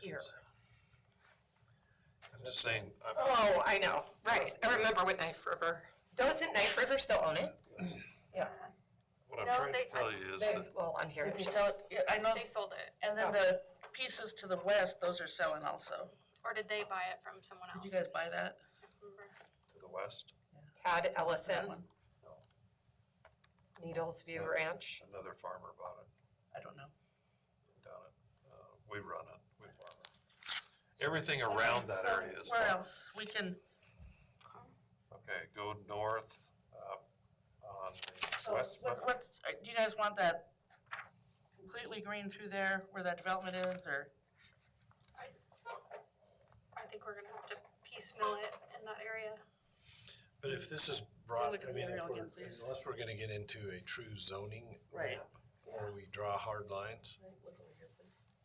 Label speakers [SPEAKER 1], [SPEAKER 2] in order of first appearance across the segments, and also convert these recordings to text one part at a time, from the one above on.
[SPEAKER 1] here.
[SPEAKER 2] I'm just saying, I,
[SPEAKER 1] Oh, I know, right, I remember with Knife River. Doesn't Knife River still own it?
[SPEAKER 2] what I'm
[SPEAKER 3] No,
[SPEAKER 2] trying
[SPEAKER 3] they-
[SPEAKER 2] to tell you is
[SPEAKER 1] They-
[SPEAKER 2] that,
[SPEAKER 1] Well, on here
[SPEAKER 4] Did
[SPEAKER 1] it
[SPEAKER 4] they
[SPEAKER 1] shows.
[SPEAKER 4] sell it? Yeah, I know,
[SPEAKER 3] They sold it,
[SPEAKER 4] and then the pieces to the west, those are selling also.
[SPEAKER 3] or did they buy it from someone else?
[SPEAKER 4] Did you guys buy that?
[SPEAKER 3] I can't remember.
[SPEAKER 2] to the west,
[SPEAKER 1] Todd
[SPEAKER 4] That
[SPEAKER 1] Ellison,
[SPEAKER 4] one?
[SPEAKER 1] Needles View
[SPEAKER 2] Yeah.
[SPEAKER 1] Ranch.
[SPEAKER 2] another farmer bought it,
[SPEAKER 4] I don't know.
[SPEAKER 2] down it, uh, we run it, we farm it. Everything around that
[SPEAKER 4] So,
[SPEAKER 2] area is
[SPEAKER 4] Where
[SPEAKER 2] farm.
[SPEAKER 4] else? We can,
[SPEAKER 2] Okay, go north, uh, on the
[SPEAKER 4] so
[SPEAKER 2] west,
[SPEAKER 4] what- what's, uh, do you guys want that completely green through there where that development is or?
[SPEAKER 3] I think we're gonna have to piecemeal it in that area.
[SPEAKER 5] But if this is broad,
[SPEAKER 4] look at the
[SPEAKER 5] I mean, if
[SPEAKER 4] aerial
[SPEAKER 5] we're,
[SPEAKER 4] again, please?
[SPEAKER 5] unless we're gonna get into a true zoning.
[SPEAKER 4] Right.
[SPEAKER 5] map Where we draw hard lines,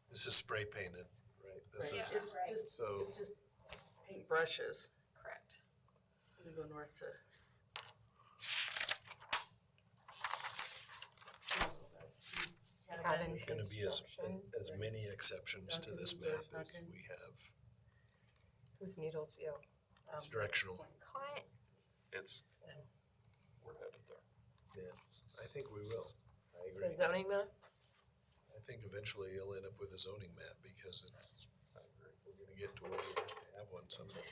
[SPEAKER 5] this is spray painted, right? This
[SPEAKER 3] Right.
[SPEAKER 5] is-
[SPEAKER 3] Yeah.
[SPEAKER 4] just,
[SPEAKER 5] So,
[SPEAKER 4] just paint brushes.
[SPEAKER 3] Correct.
[SPEAKER 4] They go north to.
[SPEAKER 1] Cabin
[SPEAKER 5] there's gonna be as,
[SPEAKER 1] Construction.
[SPEAKER 5] as many exceptions to this map as we
[SPEAKER 4] Um,
[SPEAKER 5] have
[SPEAKER 1] Who's Needles View? Um,
[SPEAKER 5] It's directional.
[SPEAKER 3] Client,
[SPEAKER 2] it's,
[SPEAKER 1] Yeah.
[SPEAKER 2] we're headed there.
[SPEAKER 5] I think we will. I
[SPEAKER 1] The
[SPEAKER 5] agree.
[SPEAKER 1] zoning map?
[SPEAKER 5] I think eventually you'll end up with a zoning map because it's, I agree, we're gonna get to where we have to have one someday.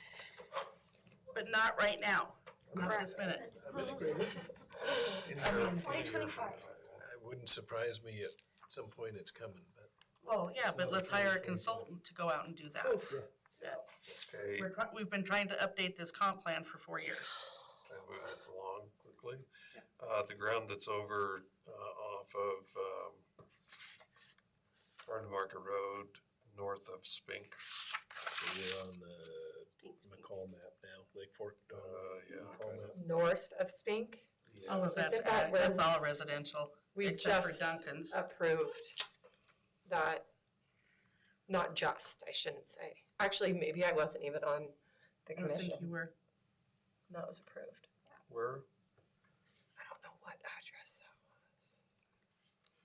[SPEAKER 4] But not right now, not this
[SPEAKER 3] Correct.
[SPEAKER 4] minute.
[SPEAKER 2] Twenty twenty-five.
[SPEAKER 5] It wouldn't surprise me at some point it's coming, but.
[SPEAKER 4] Well, yeah, but let's hire a consultant to go out and do that.
[SPEAKER 2] Okay,
[SPEAKER 4] We're, try- we've been trying to update this comp plan for four years.
[SPEAKER 2] Can I move this along quickly? Uh, the ground that's over, uh, off of, um, Farm to Market Road, north of Spink,
[SPEAKER 5] We're on the McCall map now, Lake Fork.
[SPEAKER 2] uh,
[SPEAKER 5] uh,
[SPEAKER 2] yeah.
[SPEAKER 5] McCall
[SPEAKER 2] kind of,
[SPEAKER 5] map.
[SPEAKER 1] north of Spink.
[SPEAKER 4] All
[SPEAKER 2] yeah.
[SPEAKER 4] of that's,
[SPEAKER 1] Isn't that
[SPEAKER 4] ag.
[SPEAKER 1] where-
[SPEAKER 4] that's all residential,
[SPEAKER 1] We
[SPEAKER 4] except for
[SPEAKER 1] just
[SPEAKER 4] Duncan's.
[SPEAKER 1] approved that, not just, I shouldn't say. Actually, maybe I wasn't even on the
[SPEAKER 4] I don't think you
[SPEAKER 1] commission.
[SPEAKER 4] were,
[SPEAKER 1] That was approved.
[SPEAKER 2] Where?
[SPEAKER 1] I don't know what address that was.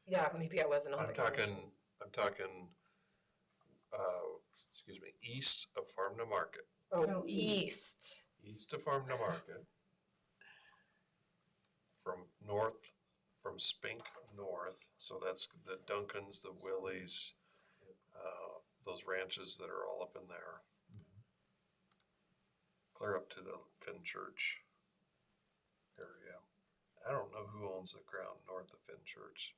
[SPEAKER 1] Yeah, maybe I wasn't on the
[SPEAKER 2] I'm
[SPEAKER 1] commission.
[SPEAKER 2] talking, I'm talking, uh, excuse me, east of Farm to Market,
[SPEAKER 1] Oh,
[SPEAKER 4] No, east.
[SPEAKER 1] east.
[SPEAKER 2] east of Farm to Market. From north, from Spink north, so that's the Duncans, the Willies, uh, those ranches that are all up in there. Clear up to the Finn Church area. I don't know who owns the ground north of Finn Church.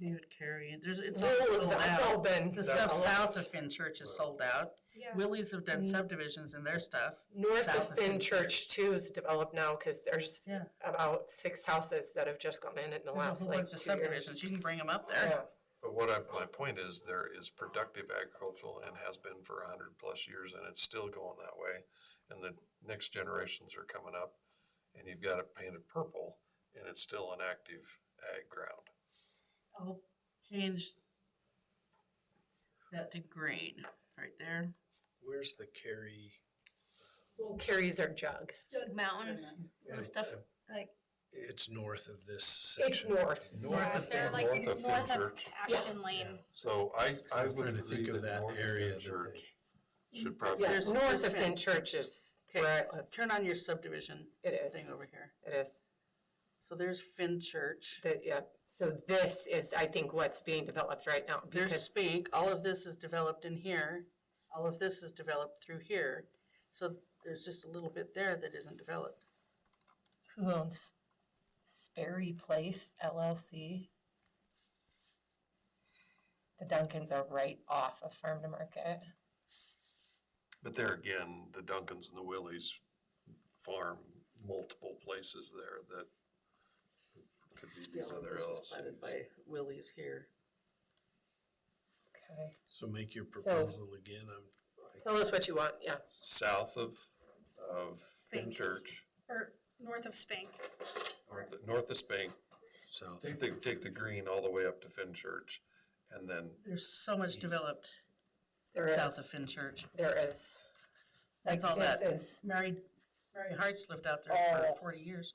[SPEAKER 4] David Carey, there's, it's all
[SPEAKER 1] Oh,
[SPEAKER 4] sold
[SPEAKER 1] that's all
[SPEAKER 4] out.
[SPEAKER 1] been.
[SPEAKER 4] The stuff
[SPEAKER 1] a lot.
[SPEAKER 4] south of Finn Church is sold out.
[SPEAKER 3] yeah.
[SPEAKER 4] Willie's have done
[SPEAKER 1] Mm.
[SPEAKER 4] subdivisions in their stuff.
[SPEAKER 1] North
[SPEAKER 4] south
[SPEAKER 1] of
[SPEAKER 4] of
[SPEAKER 1] Finn
[SPEAKER 4] Finn
[SPEAKER 1] Church too is developed now, cause there's
[SPEAKER 4] Yeah.
[SPEAKER 1] about six houses that have just gone in in the
[SPEAKER 4] There's a
[SPEAKER 1] last
[SPEAKER 4] whole
[SPEAKER 1] like
[SPEAKER 4] bunch
[SPEAKER 1] two
[SPEAKER 4] of
[SPEAKER 1] years.
[SPEAKER 4] subdivisions, you can bring them up
[SPEAKER 1] Yeah.
[SPEAKER 4] there.
[SPEAKER 2] But what I, my point is, there is productive agricultural and has been for a hundred plus years, and it's still going that way. And the next generations are coming up, and you've got it painted purple, and it's still an active ag ground.
[SPEAKER 4] I'll change that to green, right there.
[SPEAKER 5] Where's the Cary?
[SPEAKER 1] Well, Carries our jug.
[SPEAKER 6] Jug Mountain, so the stuff like
[SPEAKER 5] Uh, It's north of this
[SPEAKER 1] It's
[SPEAKER 5] section.
[SPEAKER 1] north.
[SPEAKER 3] Yeah,
[SPEAKER 4] North
[SPEAKER 3] if
[SPEAKER 4] of
[SPEAKER 3] they're
[SPEAKER 4] Finn-
[SPEAKER 3] like
[SPEAKER 2] north of Finn
[SPEAKER 3] north of
[SPEAKER 2] Church.
[SPEAKER 3] Ashton Lane,
[SPEAKER 5] Yeah.
[SPEAKER 2] So I,
[SPEAKER 5] I
[SPEAKER 2] I
[SPEAKER 5] was
[SPEAKER 2] would
[SPEAKER 5] trying to
[SPEAKER 2] agree
[SPEAKER 5] think of
[SPEAKER 2] that
[SPEAKER 5] that
[SPEAKER 2] north of
[SPEAKER 5] area
[SPEAKER 2] Finn
[SPEAKER 5] that
[SPEAKER 2] Church
[SPEAKER 5] they-
[SPEAKER 2] should probably,
[SPEAKER 1] Yeah,
[SPEAKER 4] There's-
[SPEAKER 1] north of
[SPEAKER 4] there's
[SPEAKER 1] Finn
[SPEAKER 4] been-
[SPEAKER 1] Church is
[SPEAKER 4] Okay.
[SPEAKER 1] where I live.
[SPEAKER 4] Turn on your subdivision
[SPEAKER 1] It
[SPEAKER 4] thing
[SPEAKER 1] is,
[SPEAKER 4] over here.
[SPEAKER 1] it is.
[SPEAKER 4] So there's Finn Church,
[SPEAKER 1] That, yeah, so this is, I think, what's being developed right now.
[SPEAKER 4] there's
[SPEAKER 1] because-
[SPEAKER 4] Spink, all of this is developed in here, all of this is developed through here. So there's just a little bit there that isn't developed.
[SPEAKER 1] Who owns Sperry Place LLC? The Duncans are right off of Farm to Market.
[SPEAKER 2] but there again, the Duncans and the Willies farm multiple places there that could be these
[SPEAKER 4] Yeah,
[SPEAKER 2] other
[SPEAKER 4] this was planted
[SPEAKER 2] LLCs.
[SPEAKER 4] By Willie's here.
[SPEAKER 1] Okay.
[SPEAKER 5] So make your proposal again, I'm.
[SPEAKER 1] Tell us what you want, yeah.
[SPEAKER 2] South of, of Finn
[SPEAKER 3] Spink.
[SPEAKER 2] Church.
[SPEAKER 3] or north of Spink.
[SPEAKER 2] North, north of Spain,
[SPEAKER 5] South.
[SPEAKER 2] take the, take the green all the way up to Finchurch, and then,
[SPEAKER 4] There's so much
[SPEAKER 2] East.
[SPEAKER 4] developed
[SPEAKER 1] There
[SPEAKER 4] south of
[SPEAKER 1] is,
[SPEAKER 4] Finn Church.
[SPEAKER 1] there is. Like
[SPEAKER 4] That's all
[SPEAKER 1] this
[SPEAKER 4] that.
[SPEAKER 1] is-
[SPEAKER 4] Mary, Mary Hart's lived out there
[SPEAKER 1] Oh.
[SPEAKER 4] for forty years.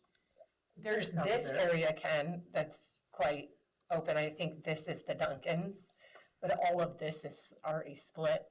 [SPEAKER 1] There's
[SPEAKER 4] South of
[SPEAKER 1] this
[SPEAKER 4] there.
[SPEAKER 1] area, Ken, that's quite open. I think this is the Duncans. But all of this is already split